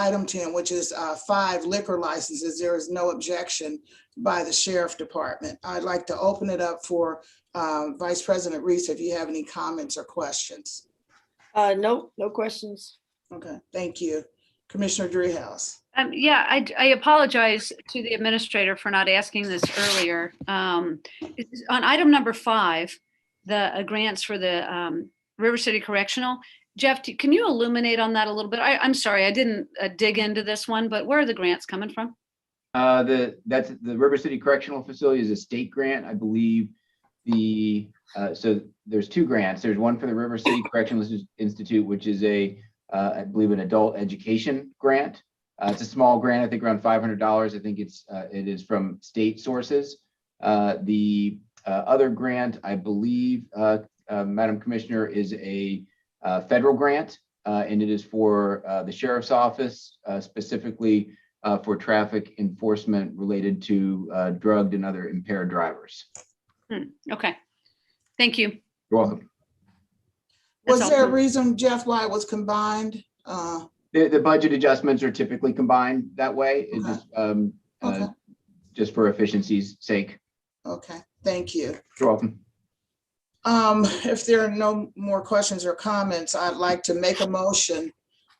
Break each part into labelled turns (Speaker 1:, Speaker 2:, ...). Speaker 1: item 10, which is uh, five liquor licenses, there is no objection by the sheriff department. I'd like to open it up for uh, Vice President Reese, if you have any comments or questions.
Speaker 2: Uh, no, no questions.
Speaker 1: Okay, thank you. Commissioner Dreehouse.
Speaker 3: Um, yeah, I, I apologize to the administrator for not asking this earlier. Um, it's- on item number five, the uh, grants for the, um, River City Correctional, Jeff, do- can you illuminate on that a little bit? I, I'm sorry, I didn't uh, dig into this one, but where are the grants coming from?
Speaker 4: Uh, the, that's, the River City Correctional Facility is a state grant, I believe. The, uh, so there's two grants. There's one for the River City Correctional Ins- Institute, which is a, uh, I believe an adult education grant. Uh, it's a small grant, I think around five hundred dollars. I think it's, uh, it is from state sources. Uh, the, uh, other grant, I believe, uh, uh, Madam Commissioner, is a, uh, federal grant. Uh, and it is for, uh, the sheriff's office, uh, specifically, uh, for traffic enforcement related to uh, drugged and other impaired drivers.
Speaker 3: Okay, thank you.
Speaker 4: You're welcome.
Speaker 3: That's
Speaker 1: Was there a
Speaker 3: all.
Speaker 1: reason, Jeff, why it was combined? Uh,
Speaker 4: The, the budget adjustments are typically combined that way, It
Speaker 1: Okay.
Speaker 4: just, um, uh,
Speaker 1: Okay.
Speaker 4: just for efficiency's sake.
Speaker 1: Okay, thank you.
Speaker 4: You're welcome.
Speaker 1: Um, if there are no more questions or comments, I'd like to make a motion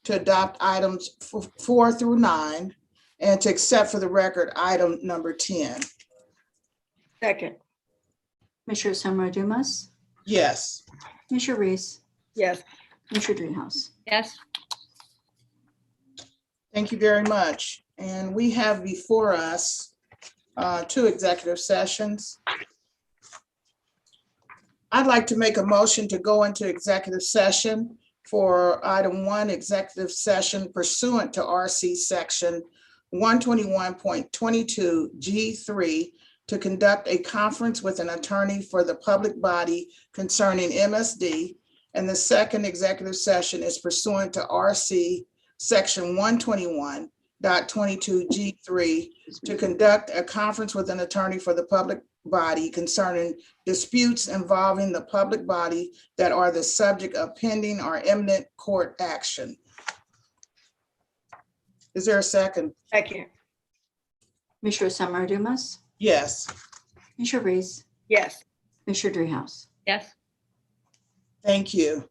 Speaker 1: to adopt items f- four through nine and to accept for the record item number ten.
Speaker 2: Second,
Speaker 5: Commissioner Summer Dumas,
Speaker 1: Yes,
Speaker 5: Commissioner Reese,
Speaker 2: yes,
Speaker 5: Commissioner Dreehouse.
Speaker 3: Yes,
Speaker 1: thank you very much. And we have before us uh, two executive sessions. I'd like to make a motion to go into executive session for item one, executive session pursuant to RC section one twenty-one point twenty-two G three to conduct a conference with an attorney for the public body concerning MSD. And the second executive session is pursuant to RC section one twenty-one G three to conduct a conference with an attorney for the public body concerning disputes involving the public body that are the subject of pending or imminent court action. Is there a second?
Speaker 2: second,
Speaker 5: Commissioner Summer Dumas,
Speaker 1: Yes,
Speaker 5: Commissioner Reese,
Speaker 2: yes.
Speaker 5: Commissioner Dreehouse.
Speaker 3: yes,
Speaker 1: thank you.